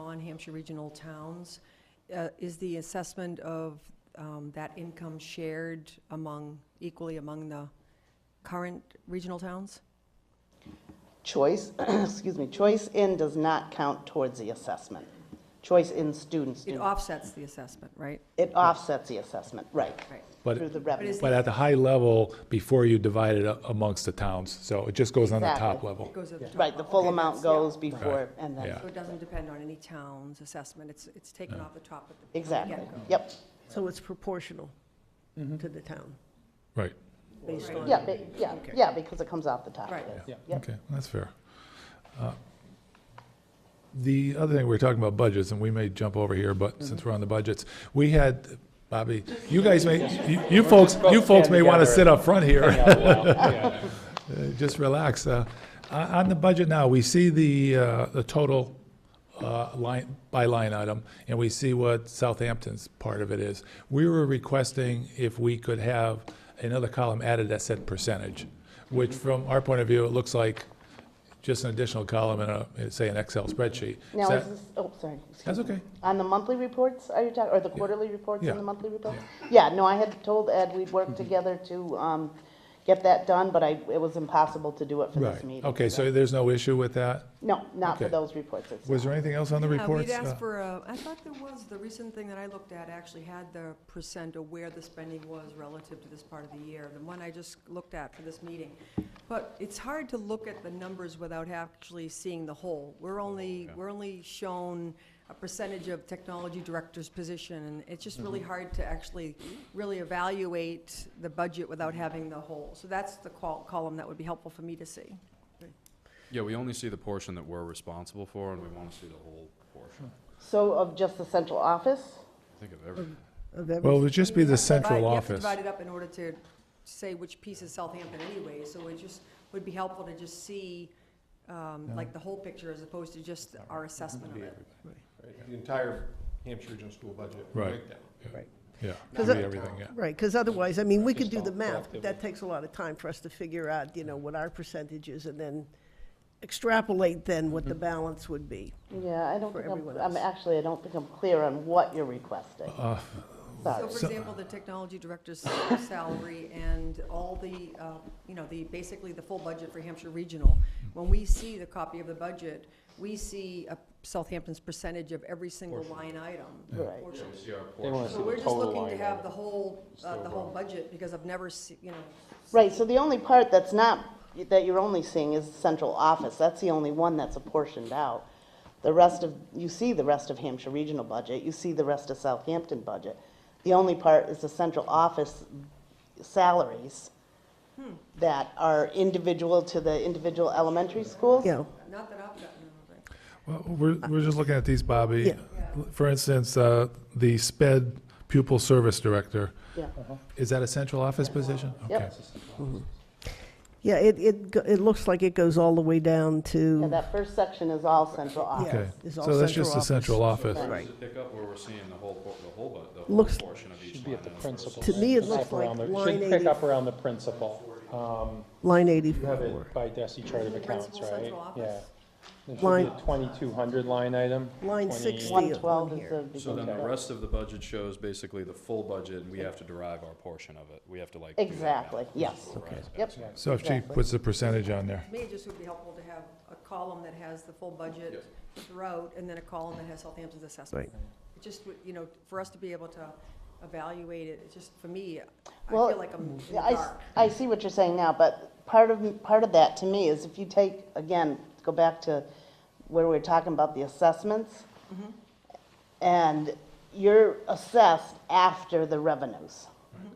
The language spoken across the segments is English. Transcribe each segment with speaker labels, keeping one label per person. Speaker 1: non-Hampshire regional towns. Uh, Is the assessment of um, that income shared among, equally among the current regional towns?
Speaker 2: Choice, excuse me, choice in does not count towards the assessment. Choice in students,
Speaker 1: It
Speaker 2: do.
Speaker 1: offsets the assessment, right?
Speaker 2: it offsets the assessment, right,
Speaker 1: Right.
Speaker 3: But-
Speaker 2: through the revenue.
Speaker 3: But at the high level, before you divide it up amongst the towns, so it just goes on the top
Speaker 2: Exactly.
Speaker 3: level.
Speaker 1: It goes at the top.
Speaker 2: Right, the full
Speaker 1: Okay,
Speaker 2: amount
Speaker 1: that's- yeah.
Speaker 2: goes before, and then,
Speaker 3: Yeah.
Speaker 1: So it doesn't depend on any town's assessment, it's, it's taken off the top at the
Speaker 2: exactly,
Speaker 1: get-go.
Speaker 2: yep.
Speaker 4: So it's proportional to the town,
Speaker 3: Right,
Speaker 4: based on.
Speaker 2: Yeah, ba- yeah, yeah, because it comes off the top.
Speaker 1: Right.
Speaker 3: yeah,
Speaker 2: Yep.
Speaker 3: okay, that's fair. Uh, The other thing, we we're talking about budgets, and we may jump over here,
Speaker 2: Mm-hmm.
Speaker 3: but since we're on the budgets, we had, Bobby, you guys may, you- you folks, you folks may want to sit up front here. Uh, Just relax. Uh, On on the budget now, we see the, uh, the total uh, line, by line item, and we see what Southampton's part of it is. We were requesting if we could have another column added that said percentage, which from our point of view, it looks like just an additional column in a, say, an Excel spreadsheet.
Speaker 2: Now,
Speaker 3: Is
Speaker 2: is
Speaker 3: that-
Speaker 2: this, oh, sorry. excuse
Speaker 3: That's
Speaker 2: me.
Speaker 3: okay.
Speaker 2: On the monthly reports, are you talking, or the quarterly reports
Speaker 3: Yeah. Mm-hmm.
Speaker 2: and the monthly reports? Yeah, no, I had told Ed we'd work together to um, get that done, but I, it was impossible to do it for this
Speaker 3: Right,
Speaker 2: meeting.
Speaker 3: okay, so there's no issue with that?
Speaker 2: No, not for
Speaker 3: okay.
Speaker 2: those reports. it's
Speaker 3: Was
Speaker 2: not.
Speaker 3: there anything else on the
Speaker 1: Yeah,
Speaker 3: reports?
Speaker 1: we'd asked
Speaker 3: Uh,
Speaker 1: for a, I thought there was, the recent thing that I looked at actually had the percent of where the spending was relative to this part of the year, the one I just looked at for this meeting. But it's hard to look at the numbers without actually seeing the whole. We're
Speaker 3: Oh,
Speaker 1: only, we're only shown a percentage of technology director's position, and it's just really
Speaker 3: Mm-hmm.
Speaker 1: hard to actually really evaluate the budget without having the whole. So that's the col- column that would be helpful for me to see.
Speaker 5: Yeah, we only see the portion that we're responsible for, and we want to see the whole portion.
Speaker 2: So of just the central office?
Speaker 5: I think of everything.
Speaker 4: Of every-
Speaker 3: Well, it would just be the
Speaker 1: Divide-
Speaker 3: central
Speaker 1: You
Speaker 3: office.
Speaker 1: have to divide it up in order to say which piece is Southampton anyway, so it just, would be helpful to just see, um, like, the whole picture as opposed to just our assessment of it.
Speaker 6: Right, The entire Hampshire Regional School budget
Speaker 3: Right.
Speaker 6: breakdown.
Speaker 4: Right,
Speaker 3: Yeah,
Speaker 4: Does
Speaker 3: read
Speaker 4: it-
Speaker 3: everything, yeah.
Speaker 4: right, because otherwise, I mean, we could do the
Speaker 6: Just all
Speaker 4: math, but that takes a lot of time for us to figure out, you know, what our percentage is and then extrapolate then what the
Speaker 7: Mm-hmm.
Speaker 4: balance would be.
Speaker 2: Yeah, I don't
Speaker 4: For
Speaker 2: think I'm,
Speaker 4: everyone
Speaker 2: I'm
Speaker 4: else. Uh,
Speaker 2: actually, I don't think I'm clear on what you're requesting.
Speaker 1: So,
Speaker 2: Sorry.
Speaker 1: for example, the technology director's salary and all the, uh, you know, the, basically the full budget for Hampshire Regional, when we see the copy of the budget, we see a Southampton's percentage of every single line item.
Speaker 2: Right.
Speaker 1: Portion.
Speaker 5: We see our
Speaker 6: They
Speaker 5: portion.
Speaker 6: want
Speaker 1: So we're just looking to have the whole, uh, the whole budget, because I've never, se- you know,
Speaker 2: Right, so the only part that's not, that you're only seeing is the central office. That's the only one that's apportioned out. The rest of, you see the rest of Hampshire Regional budget, you see the rest of Southampton budget. The only part is the central office salaries Hmm. that are individual to the individual elementary schools.
Speaker 4: You know,
Speaker 1: Not that I've gotten over it.
Speaker 3: Well, we're, we're just looking at these, Bobby.
Speaker 4: Yeah.
Speaker 3: For instance, uh, the SPED pupil service director,
Speaker 2: Yeah.
Speaker 3: is that a central office position?
Speaker 2: Yep.
Speaker 3: Okay.
Speaker 4: yeah, it, it, go- it looks like it goes all the way down
Speaker 2: Yeah,
Speaker 4: to,
Speaker 2: that first section is all central
Speaker 3: Okay,
Speaker 2: office.
Speaker 4: It's all
Speaker 3: so that's
Speaker 4: central
Speaker 3: just the
Speaker 4: office.
Speaker 3: central office.
Speaker 2: Right.
Speaker 4: right.
Speaker 5: To pick up where we're seeing the whole, por- the whole, bu- the whole
Speaker 4: Looks-
Speaker 5: portion of each line. item versus-
Speaker 4: To me, it looks
Speaker 7: Up around
Speaker 4: like
Speaker 7: the-
Speaker 4: line
Speaker 7: Should pick up
Speaker 4: 80
Speaker 7: around the principal. Um,
Speaker 4: line
Speaker 7: You have
Speaker 4: 84,
Speaker 7: it by DESI chart of accounts,
Speaker 1: Principal
Speaker 7: right?
Speaker 1: central office.
Speaker 7: Yeah. There should
Speaker 4: Line-
Speaker 7: be a 2,200 line item.
Speaker 4: line
Speaker 7: 20
Speaker 4: 60
Speaker 2: One
Speaker 4: on
Speaker 2: twelve is
Speaker 4: here.
Speaker 2: the.
Speaker 5: So then the
Speaker 2: beginning.
Speaker 5: rest of the budget shows basically the full budget, and we have to derive our portion of it. We have to like. do that math.
Speaker 2: Exactly, yes.
Speaker 5: Okay.
Speaker 2: Yep,
Speaker 3: So if she puts the percentage on there,
Speaker 1: To me, it just would be helpful to have a column that has the full budget throughout, and then a column that has Southampton's assessment. It just would, you know, for us to be able to evaluate it, it's just, for me, I
Speaker 2: Well,
Speaker 1: feel like I'm in the
Speaker 2: Yeah, I, s-
Speaker 1: dark.
Speaker 2: I see what you're saying now, but part of, part of that to me is if you take, again, go back to where we were talking about the assessments,
Speaker 7: Mm-hmm.
Speaker 2: and you're assessed after the revenues.
Speaker 7: Mm-hmm.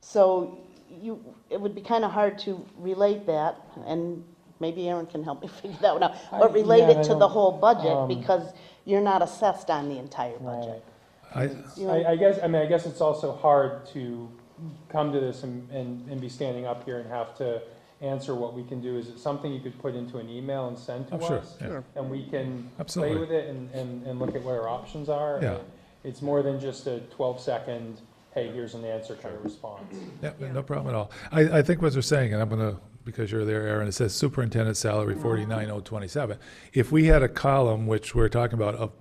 Speaker 2: So you, it would be kind of hard to relate that, and maybe Aaron can help me figure that one out, but
Speaker 7: I-
Speaker 2: relate
Speaker 7: yeah,
Speaker 2: it
Speaker 7: I
Speaker 2: to the
Speaker 7: don't- um,
Speaker 2: whole budget, because you're not assessed on the entire budget.
Speaker 7: Right.
Speaker 3: I,
Speaker 7: I, I guess, I mean, I guess it's also hard to come to this and, and, and be standing up here and have to answer what we can do. Is it something you could put into an email and send to
Speaker 3: Oh, sure,
Speaker 7: us?
Speaker 3: yeah. Sure.
Speaker 7: And we can play
Speaker 3: Absolutely.
Speaker 7: with it and, and, and look at what our options are.
Speaker 3: Yeah.
Speaker 7: It's more than just a twelve second, hey, here's an answer kind of response.
Speaker 3: yeah, no problem at all. I, I think what they're saying, and I'm gonna, because you're there, Aaron, it says superintendent salary forty-nine oh twenty-seven. If we had a column, which we're talking about, of